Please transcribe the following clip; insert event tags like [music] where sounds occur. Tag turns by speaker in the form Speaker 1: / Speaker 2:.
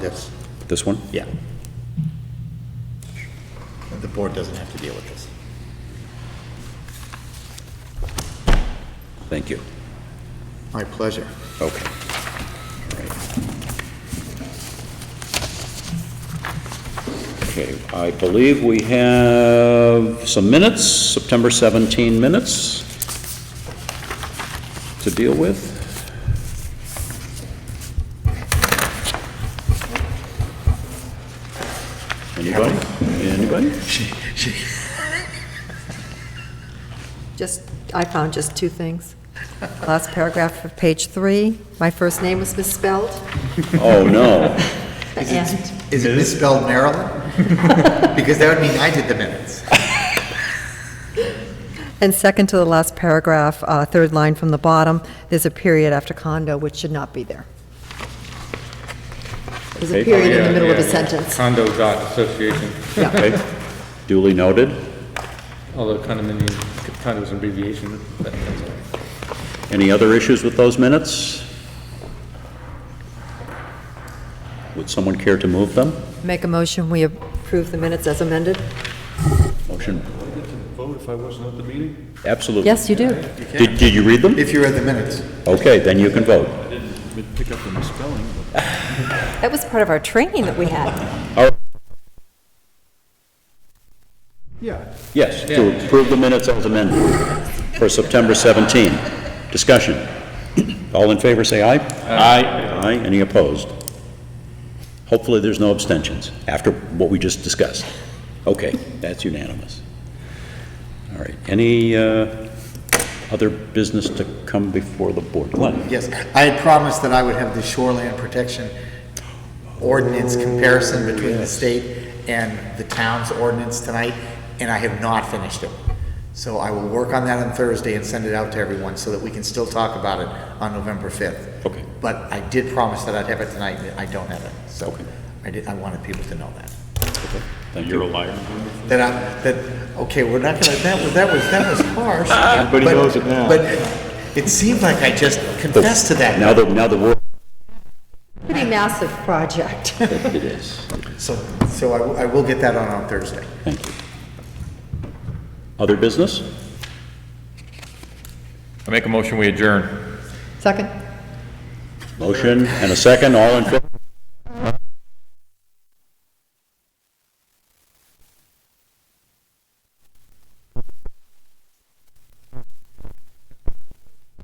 Speaker 1: Yes,
Speaker 2: This one?
Speaker 1: yeah. The board doesn't have to deal with this.
Speaker 2: Thank you.
Speaker 1: My pleasure.
Speaker 2: Okay. All right. Okay, I believe we have some minutes, September 17 minutes to deal with. Anybody? Anybody?
Speaker 3: Just, I found just two things. Last paragraph of page three, my first name was misspelled.
Speaker 2: Oh, no.
Speaker 3: And
Speaker 1: Is it misspelled Maryland? [laughs] Because that would mean I did the minutes.
Speaker 3: and second to the last paragraph, uh, third line from the bottom, there's a period after condo, which should not be there. There's a
Speaker 2: Okay.
Speaker 3: period in the middle of a
Speaker 4: Yeah, yeah.
Speaker 3: sentence.
Speaker 4: Condo dot association,
Speaker 2: Okay. Duly noted.
Speaker 4: although condominium, condo is an abbreviation, but that's all right.
Speaker 2: Any other issues with those minutes? Would someone care to move them?
Speaker 3: Make a motion, we approve the minutes as amended?
Speaker 2: Motion?
Speaker 5: vote if I wasn't at the meeting?
Speaker 2: Absolutely.
Speaker 3: Yes, you do.
Speaker 2: Did, did you read them?
Speaker 1: If you read the minutes.
Speaker 2: Okay, then you can vote.
Speaker 5: I didn't pick up the misspelling.
Speaker 3: That was part of our training that we had.
Speaker 5: Yeah.
Speaker 2: Yes, to approve the minutes as amended for September 17. Discussion. All in favor, say aye. Aye. Aye. Any opposed? Hopefully, there's no abstentions after what we just discussed. Okay, that's unanimous. All right, any uh, other business to come before the board? Glenn?
Speaker 1: Yes, I had promised that I would have the shoreland protection ordinance comparison between the state and the town's ordinance tonight, and I have not finished it. So I will work on that on Thursday and send it out to everyone so that we can still talk about it on November 5th.
Speaker 2: Okay.
Speaker 1: But I did promise that I'd have it tonight, and I don't have it, so
Speaker 2: Okay.
Speaker 1: I did, I wanted people to know that.
Speaker 2: Thank you.
Speaker 1: That I, that, okay, we're not gonna, that was, that was, that was harsh. Everybody knows it now. But it seemed like I just confessed to that.
Speaker 2: Now the, now the word,
Speaker 3: Pretty massive project. [laughs]
Speaker 2: it is.
Speaker 1: So, so I, I will get that on on Thursday.
Speaker 2: Thank you. Other business?
Speaker 6: I make a motion, we adjourn.
Speaker 3: Second?
Speaker 2: Motion and a second, all in favor?